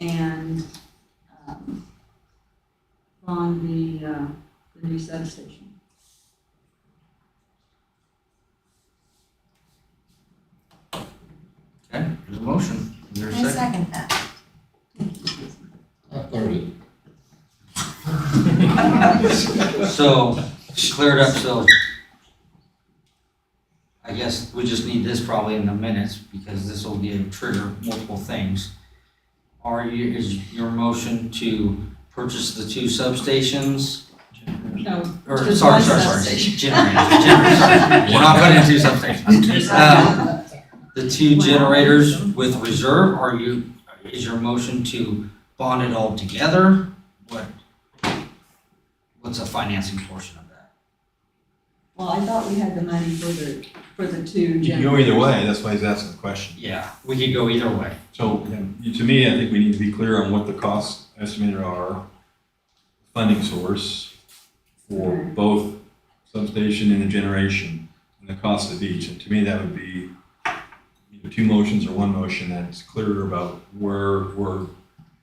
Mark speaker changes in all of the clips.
Speaker 1: and, um, on the, uh, the new substation.
Speaker 2: Okay, there's a motion. Is there a
Speaker 3: I
Speaker 2: second?
Speaker 3: second that.
Speaker 4: I third it.
Speaker 2: So, she cleared up, so I guess we just need this probably in the minutes because this will give trigger multiple things. Are you, is your motion to purchase the two substations?
Speaker 1: No,
Speaker 2: Or,
Speaker 1: Just
Speaker 2: sorry,
Speaker 1: one
Speaker 2: sorry, sorry,
Speaker 1: substation.
Speaker 2: generators, generators. We're not putting in two substations. Um, The two generators with reserve, are you, is your motion to bond it all together? What? What's the financing portion of that?
Speaker 1: well, I thought we had the money for the, for the two
Speaker 5: You
Speaker 1: generators.
Speaker 5: can go either way, that's why he's asking the question.
Speaker 2: Yeah, we could go either way.
Speaker 5: So, you- to me, I think we need to be clear on what the cost estimated are, funding source for both substation and the generation, and the cost of each. And to me, that would be either two motions or one motion that's clearer about where we're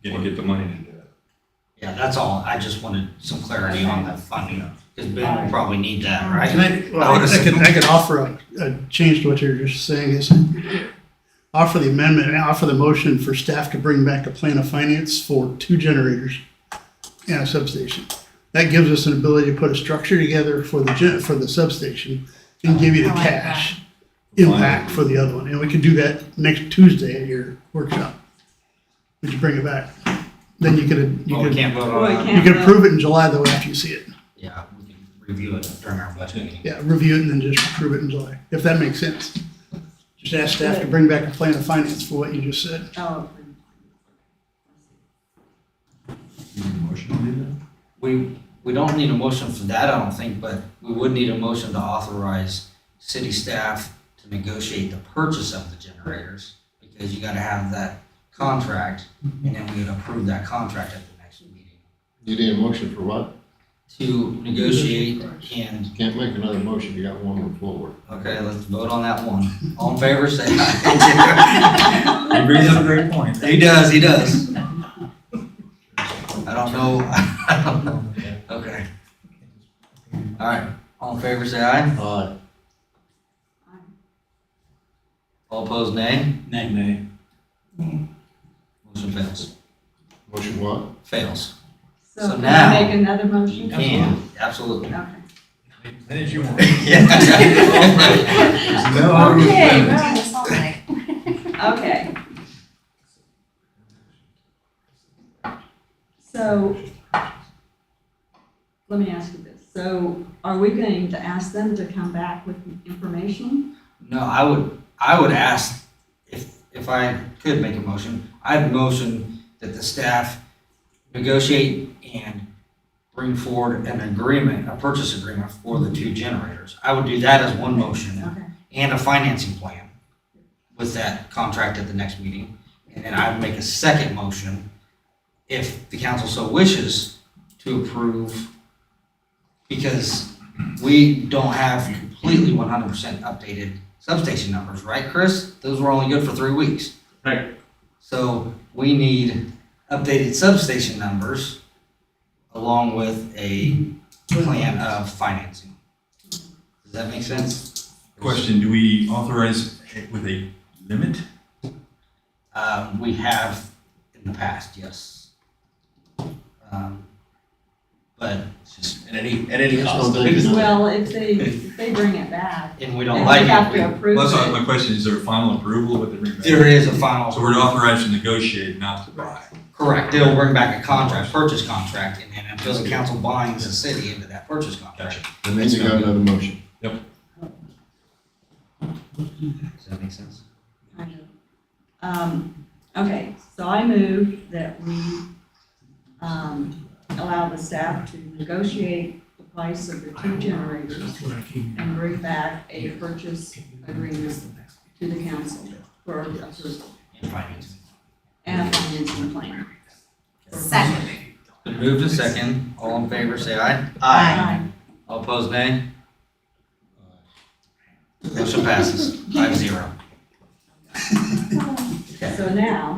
Speaker 5: gonna get the money to do it.
Speaker 2: Yeah, that's all. I just wanted some clarity on the funding, because Ben will probably need that, right?
Speaker 6: Can I, well, I I can, I can offer a, a change to what you're just saying is offer the amendment, and offer the motion for staff to bring back a plan of finance for two generators and a substation. That gives us an ability to put a structure together for the gen, for the substation and give you the
Speaker 3: I like that.
Speaker 6: cash impact for the other one. And we could do that next Tuesday at your workshop. Would you bring it back? Then you could, you
Speaker 2: Well, we
Speaker 6: could,
Speaker 2: can't vote
Speaker 1: Well, we
Speaker 2: on it.
Speaker 1: can't.
Speaker 6: you could approve it in July though after you see it.
Speaker 2: Yeah, we can review it during our budget meeting.
Speaker 6: Yeah, review it and then just approve it in July, if that makes sense. Just ask staff to bring back a plan of finance for what you just said.
Speaker 1: Oh,
Speaker 5: You need a motion to do that?
Speaker 2: We, we don't need a motion for that, I don't think, but we would need a motion to authorize city staff to negotiate the purchase of the generators, because you gotta have that contract, and then we would approve that contract at the next meeting.
Speaker 4: You need a motion for what?
Speaker 2: To negotiate and,
Speaker 4: You can't make another motion, you got one on the floor.
Speaker 2: okay, let's vote on that one. All in favor, say aye.
Speaker 5: He brings up a great point.
Speaker 2: He does, he does. I don't know, I don't know. Okay. All right, all in favor, say aye.
Speaker 4: Aye.
Speaker 2: All opposed, nay.
Speaker 5: Nay.
Speaker 2: Motion fails.
Speaker 4: Motion what?
Speaker 2: Fails. So
Speaker 1: so can
Speaker 2: now-
Speaker 1: I make another
Speaker 2: You
Speaker 1: motion?
Speaker 2: can, absolutely.
Speaker 1: Okay.
Speaker 5: That is your.
Speaker 2: Yeah.
Speaker 5: Okay.
Speaker 3: Okay, we're on this all night.
Speaker 1: Okay. So, let me ask you this. So are we going to ask them to come back with information?
Speaker 2: No, I would, I would ask, if, if I could make a motion, I'd motion that the staff negotiate and bring forward an agreement, a purchase agreement for the two generators. I would do that as one motion.
Speaker 1: Okay.
Speaker 2: and a financing plan with that contract at the next meeting. And then I would make a second motion, if the council so wishes, to approve. Because we don't have completely one hundred percent updated substation numbers, right, Chris? Those were only good for three weeks.
Speaker 7: Right.
Speaker 2: So we need updated substation numbers along with a plan of financing. Does that make sense?
Speaker 5: Question, do we authorize it with a limit?
Speaker 2: Um, we have in the past, yes. Um, but it's just,
Speaker 7: At any, at any
Speaker 4: Yes,
Speaker 7: cost.
Speaker 4: no, thank you.
Speaker 1: Well, if they, if they bring it back,
Speaker 2: and we don't
Speaker 1: then we
Speaker 2: like
Speaker 1: have
Speaker 2: it.
Speaker 1: to
Speaker 5: Well,
Speaker 1: approve
Speaker 5: That's why
Speaker 1: it.
Speaker 5: my question, is there final approval with the rebate?
Speaker 2: we- There is a
Speaker 5: So
Speaker 2: final,
Speaker 5: we're authorized to negotiate, not to buy.
Speaker 2: correct, they'll bring back a contract, purchase contract, and then until the council binds the city into that purchase contract.
Speaker 4: And then you got another motion.
Speaker 2: Does that make sense?
Speaker 1: I know. Um, okay, so I move that we, um, allow the staff to negotiate the price of the two generators and bring back a purchase agreement to the council for approval
Speaker 2: In finance.
Speaker 1: and a financing plan.
Speaker 3: Second.
Speaker 2: Been moved to second, all in favor, say aye.
Speaker 3: Aye.
Speaker 2: All opposed, nay? Motion passes, five zero.
Speaker 1: So now,